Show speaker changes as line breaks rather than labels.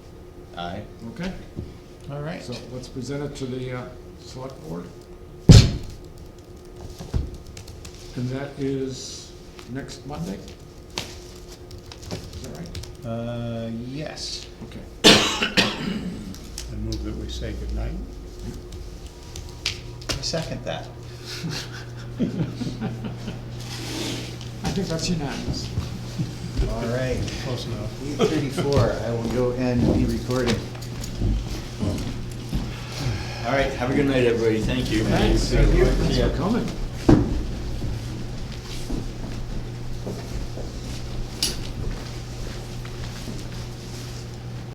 Aye.
Okay,
All right.
so let's present it to the uh, select board. And that is next Monday? Is that right?
Uh, yes.
Okay.
I move that we say goodnight.
I second that.
I think that's unanimous.
All right.
Close enough.
Eight thirty-four, I will go and be recording.
All right, have a good night, everybody, thank you.
Thanks, thank you, thanks for coming.